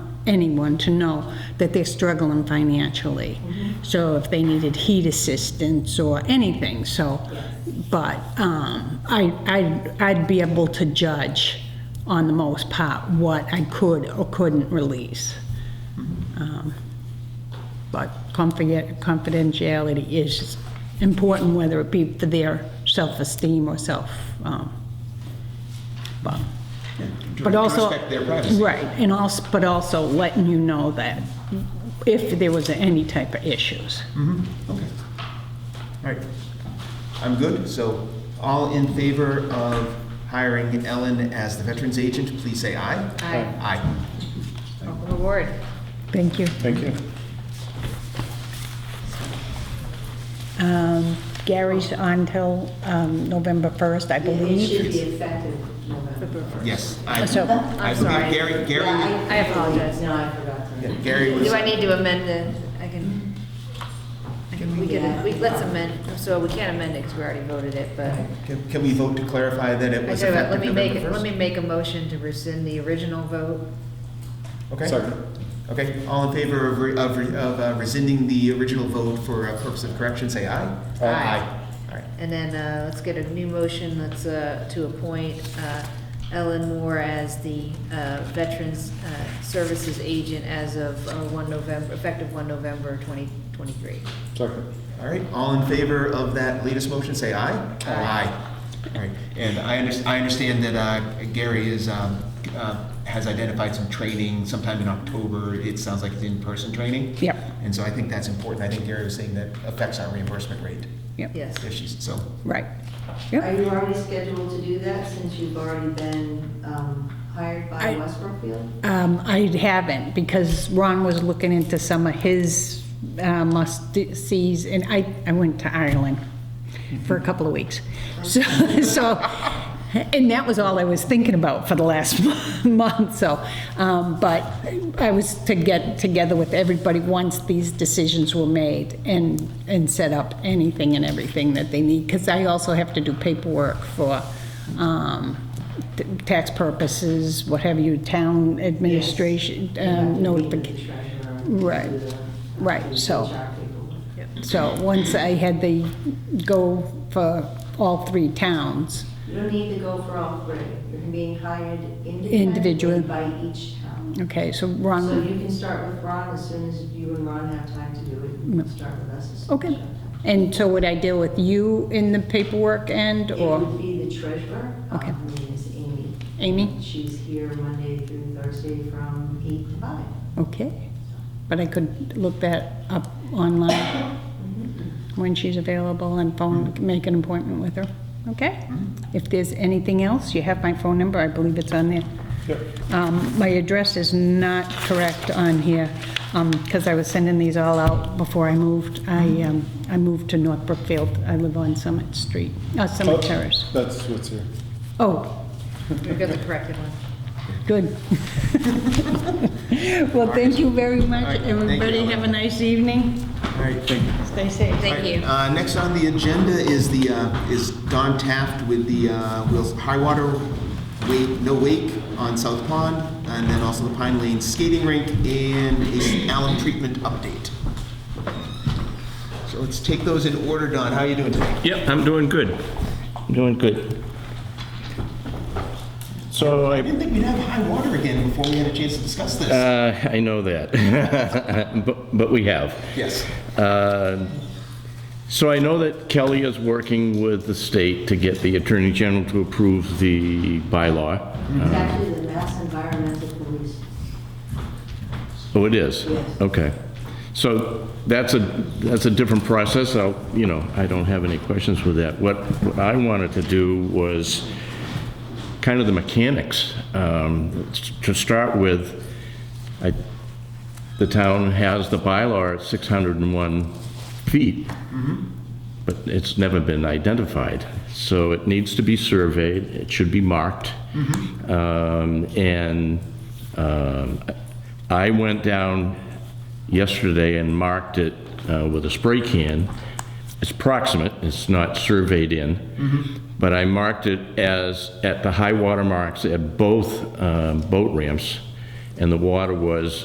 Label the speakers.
Speaker 1: anyone to know that they're struggling financially. So if they needed heat assistance or anything, so, but um, I, I'd, I'd be able to judge on the most part what I could or couldn't release. Um, But confident- confidentiality is important, whether it be for their self-esteem or self, um, but.
Speaker 2: To-
Speaker 1: But
Speaker 2: to
Speaker 1: also,
Speaker 2: respect their privacy.
Speaker 1: right, and also, but also letting you know that if there was any type of issues.
Speaker 2: Okay. All right. I'm good. So all in favor of hiring Ellen as the Veterans Agent, please say aye.
Speaker 3: Aye.
Speaker 2: Aye.
Speaker 3: Welcome aboard.
Speaker 1: Thank you.
Speaker 4: Thank you.
Speaker 1: Um, Gary's on till um, November 1st, I
Speaker 5: It should be
Speaker 1: believe.
Speaker 5: effective November.
Speaker 2: Yes. I-
Speaker 1: So-
Speaker 2: I-
Speaker 3: I'm sorry.
Speaker 2: Gary, Gary,
Speaker 5: Yeah,
Speaker 3: I apologize.
Speaker 5: No, I forgot. to-
Speaker 2: yeah, Gary was,
Speaker 3: Do I need to amend the, I can, I can- we can, we, let's amend, so we can't amend it because we already voted it, but.
Speaker 2: can can we vote to clarify that it
Speaker 3: I
Speaker 2: was
Speaker 3: tell you what,
Speaker 2: effective
Speaker 3: let me
Speaker 2: November
Speaker 3: make, it-
Speaker 2: 1st?
Speaker 3: let me make a motion to rescind the original vote.
Speaker 2: Okay. Okay, all in favor of, re- of, re- of uh, rescinding the original vote for uh, purpose of correction, say aye.
Speaker 3: Aye.
Speaker 2: All right.
Speaker 3: And then, uh, let's get a new motion that's, uh, to appoint, uh, Ellen Moore as the, uh, Veterans, uh, Services Agent as of, uh, one November, effective one November twenty twenty-three.
Speaker 4: Second.
Speaker 2: All right, all in favor of that latest motion, say aye. Aye. All right, and I under, I understand that uh, Gary is, um, uh, has identified some training sometime in October. It sounds like it's in-person training.
Speaker 1: Yep.
Speaker 2: And so I think that's important. I think Gary was saying that affects our reimbursement rate.
Speaker 1: Yep,
Speaker 3: Yes.
Speaker 2: If she's, so,
Speaker 1: right.
Speaker 5: Are
Speaker 1: Yep.
Speaker 5: you already scheduled to do that since you've already been um, hired by
Speaker 1: I-
Speaker 5: West Brookfield?
Speaker 1: Um, I haven't, because Ron was looking into some of his uh, must-sees, and I, I went to Ireland for a couple of weeks. So, so, and that was all I was thinking about for the last month, so. um, But I was to get together with everybody once these decisions were made and, and set up anything and everything that they need, because I also have to do paperwork for um, t- tax purposes, what have you, town administration, um, notification. Right.
Speaker 5: uh,
Speaker 1: Right, so- So once I had the go for all three towns,
Speaker 5: You don't need to go for all three. You're being hired
Speaker 1: Individual.
Speaker 5: individually by each town.
Speaker 1: okay, so
Speaker 5: So
Speaker 1: Ron,
Speaker 5: you can start with Ron as soon as you and Ron have time to do it. You can start with us as soon as you
Speaker 1: Mm. okay.
Speaker 5: have time.
Speaker 1: And so would I deal with you in the paperwork end
Speaker 5: It
Speaker 1: or
Speaker 5: would be the treasurer. Um,
Speaker 1: Okay.
Speaker 5: Her name is Amy.
Speaker 1: Amy?
Speaker 5: She's here Monday through Thursday from eight to five.
Speaker 1: Okay, but I could look that up online when she's available and phone, make an appointment with her, okay? If there's anything else, you have my phone number, I believe it's on there.
Speaker 4: Yep.
Speaker 1: Um, My address is not correct on here, because I was sending these all out before I moved. I, um, I moved to North Brookfield, I live on Summit Street, uh, Summit Terrace.
Speaker 4: That's what's here.
Speaker 1: Oh,
Speaker 3: We got the corrected one.
Speaker 1: good. Well, thank you very
Speaker 2: All right,
Speaker 1: much,
Speaker 2: thank you,
Speaker 1: everybody,
Speaker 2: Ellen.
Speaker 1: have a nice evening.
Speaker 2: all right, thank you.
Speaker 1: Stay safe.
Speaker 3: Thank you.
Speaker 2: Uh, next on the agenda is the, uh, is Don Taft with the, uh, Wheels, High Water Wake, No Wake on South Pond, and then also the Pine Lane Skating Rink and a alum treatment update. So let's take those in order, Don, how are you doing today?
Speaker 6: Yep, I'm doing good. I'm doing good.
Speaker 4: So
Speaker 2: I
Speaker 4: I,
Speaker 2: didn't think we'd have high water again before we had a chance to discuss this.
Speaker 6: Uh, I know that, but, but we have.
Speaker 2: Yes.
Speaker 6: Uh, So I know that Kelly is working with the state to get the Attorney General to approve the bylaw.
Speaker 5: It's actually the Mass Environmental Police.
Speaker 6: Oh, it is?
Speaker 5: Yes.
Speaker 6: Okay. So that's a, that's a different process. I'll, you know, I don't have any questions with that. What what I wanted to do was kind of the mechanics. Um, To start with, I, the town has the bylaw at 601 feet,
Speaker 5: Mm-hmm.
Speaker 6: but it's never been identified. So it needs to be surveyed, it should be marked.
Speaker 5: Mm-hmm.
Speaker 6: Um, And um, I went down yesterday and marked it uh, with a spray can. It's proximate, it's not surveyed in, but I marked it as, at the high water marks at both um, boat ramps, and the water was